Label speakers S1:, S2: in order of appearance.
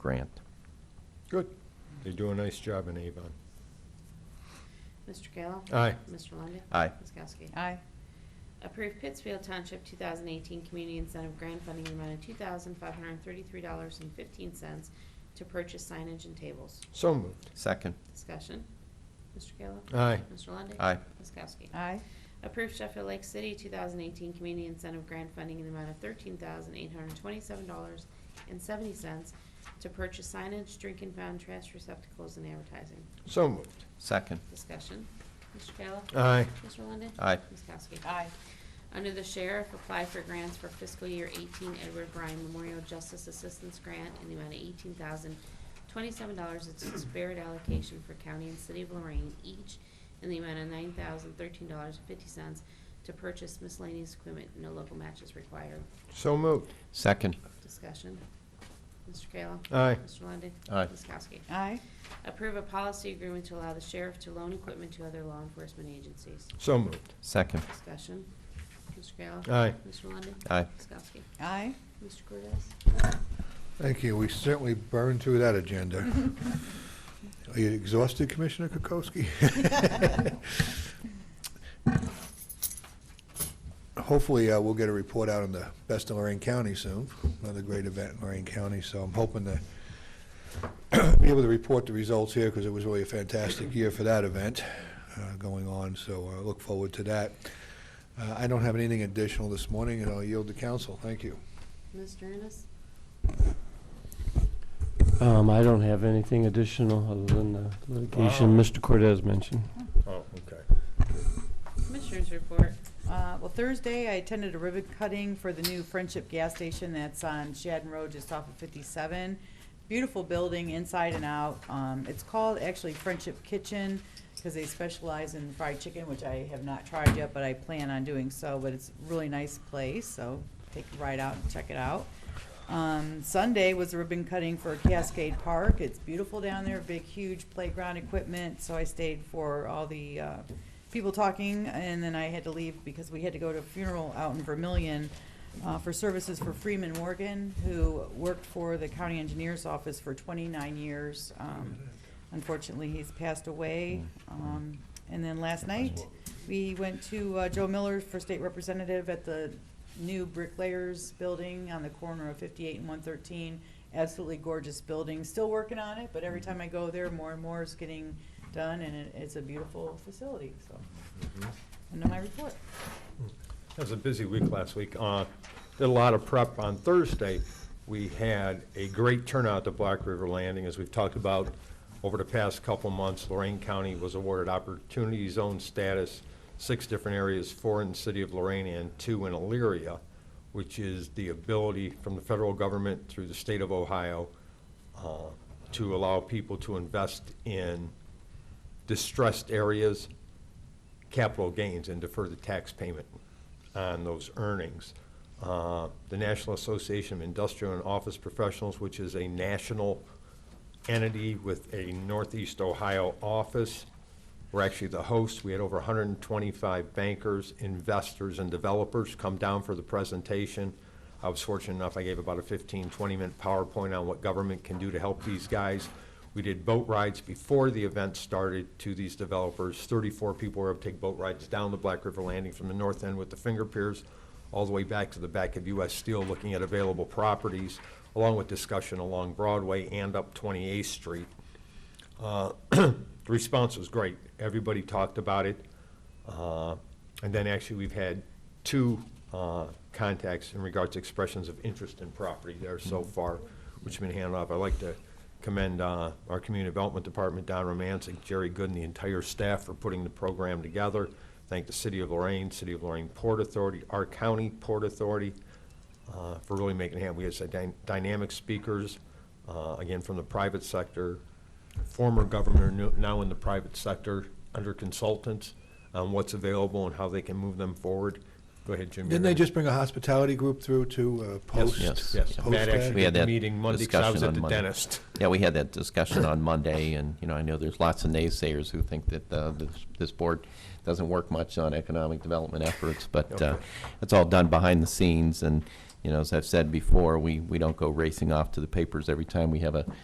S1: grant.
S2: Good. They do a nice job in Avon.
S3: Mr. Kayla?
S2: Aye.
S3: Mr. Lundey?
S1: Aye.
S3: Ms. Kowski?
S4: Aye.
S3: Approve Pittsfield Township 2018 Community Incentive Grant Funding in the amount of $2,533.15 to purchase signage and tables.
S2: So moved.
S1: Second.
S3: Discussion. Mr. Kayla?
S2: Aye.
S3: Mr. Lundey?
S1: Aye.
S3: Ms. Kowski?
S4: Aye.
S3: Approve Sheffield Lake City 2018 Community Incentive Grant Funding in the amount of $13,827.70 to purchase signage, drink and fountain, trash receptacles, and advertising.
S2: So moved.
S1: Second.
S3: Discussion. Mr. Kayla?
S2: Aye.
S3: Mr. Lundey?
S1: Aye.
S3: Ms. Kowski?
S4: Aye.
S3: Under the Sheriff, apply for grants for fiscal year 18 Edward Bryan Memorial Justice Assistance Grant in the amount of $18,027. It's a spared allocation for county and city of Lorraine each in the amount of $9,013.50 to purchase miscellaneous equipment. No local matches required.
S2: So moved.
S1: Second.
S3: Discussion. Mr. Kayla?
S2: Aye.
S3: Mr. Lundey?
S1: Aye.
S3: Ms. Kowski?
S4: Aye.
S3: Approve a policy agreement to allow the sheriff to loan equipment to other law enforcement agencies.
S2: So moved.
S1: Second.
S3: Discussion. Mr. Kayla?
S2: Aye.
S3: Mr. Lundey?
S1: Aye.
S3: Ms. Kowski?
S4: Aye.
S3: Mr. Cordez?
S5: Thank you. We certainly burned through that agenda. Are you exhausted, Commissioner Kokoski? Hopefully, uh, we'll get a report out on the Best of Lorraine County soon, another great event in Lorraine County, so I'm hoping to be able to report the results here, because it was really a fantastic year for that event uh, going on, so I look forward to that. Uh, I don't have anything additional this morning, and I'll yield to council. Thank you.
S3: Mr. Ennis?
S6: Um, I don't have anything additional other than the litigation
S2: Wow.
S6: Mr. Cortez mentioned.
S2: Oh, okay.
S3: Commissioners report.
S4: Uh, Well, Thursday, I attended a ribbon cutting for the new Friendship Gas Station that's on Shadden Road, just off of 57. Beautiful building, inside and out. Um, It's called actually Friendship Kitchen, because they specialize in fried chicken, which I have not tried yet, but I plan on doing so. But it's a really nice place, so take a ride out and check it out. Um, Sunday was a ribbon cutting for Cascade Park. It's beautiful down there, big, huge playground equipment. So I stayed for all the uh, people talking, and then I had to leave because we had to go to a funeral out in Vermillion uh, for services for Freeman Morgan, who worked for the county engineer's office for 29 years. Um, unfortunately, he's passed away. Um, and then last night, we went to uh, Joe Miller for state representative at the new bricklayers building on the corner of 58 and 113. Absolutely gorgeous building. Still working on it, but every time I go there, more and more is getting done, and it, it's a beautiful facility. So, and then my report.
S2: That was a busy week last week. Uh, Did a lot of prep on Thursday. We had a great turnout at Black River Landing, as we've talked about over the past couple months. Lorraine County was awarded Opportunity Zone status, six different areas, four in the city of Lorraine and two in Elyria, which is the ability from the federal government through the state of Ohio uh, to allow people to invest in distressed areas capital gains and defer the tax payment on those earnings. Uh, The National Association of Industrial and Office Professionals, which is a national entity with a Northeast Ohio office, we're actually the host. We had over 125 bankers, investors, and developers come down for the presentation. I was fortunate enough, I gave about a 15, 20-minute PowerPoint on what government can do to help these guys. We did boat rides before the event started to these developers. 34 people were able to take boat rides down the Black River Landing from the north end with the finger piers all the way back to the back of U.S. Steel, looking at available properties, along with discussion along Broadway and up 28th Street. Uh, The response was great. Everybody talked about it. Uh, And then actually, we've had two uh, contacts in regards to expressions of interest in property there so far, which have been handed off. I'd like to commend uh, our Community Development Department, Don Romancic, Jerry Good, and the entire staff for putting the program together. Thank the City of Lorraine, City of Lorraine Port Authority, our county Port Authority, uh, for really making it happen. We had some dyna- dynamic speakers, uh, again, from the private sector, former governor, nu- now in the private sector, under consultants, on what's available and how they can move them forward. Go ahead, Jim.
S5: Didn't
S2: you're
S5: they
S2: gonna-
S5: just bring a hospitality group through to uh,
S2: Yes,
S5: post?
S1: Yes,
S2: Yes,
S5: post
S2: Matt
S5: that?
S1: We
S2: actually
S1: had
S2: had the
S1: that
S2: meeting Monday, 'cause I was
S1: discussion
S2: at
S1: on
S2: the
S1: Monday.
S2: dentist.
S1: Yeah, we had that discussion on Monday, and, you know, I know there's lots of naysayers who think that uh, this- this board doesn't work much on economic development efforts, but uh,
S2: Okay.
S1: it's all done behind the scenes, and you know, as I've said before, we, we don't go racing off to the papers every time we have a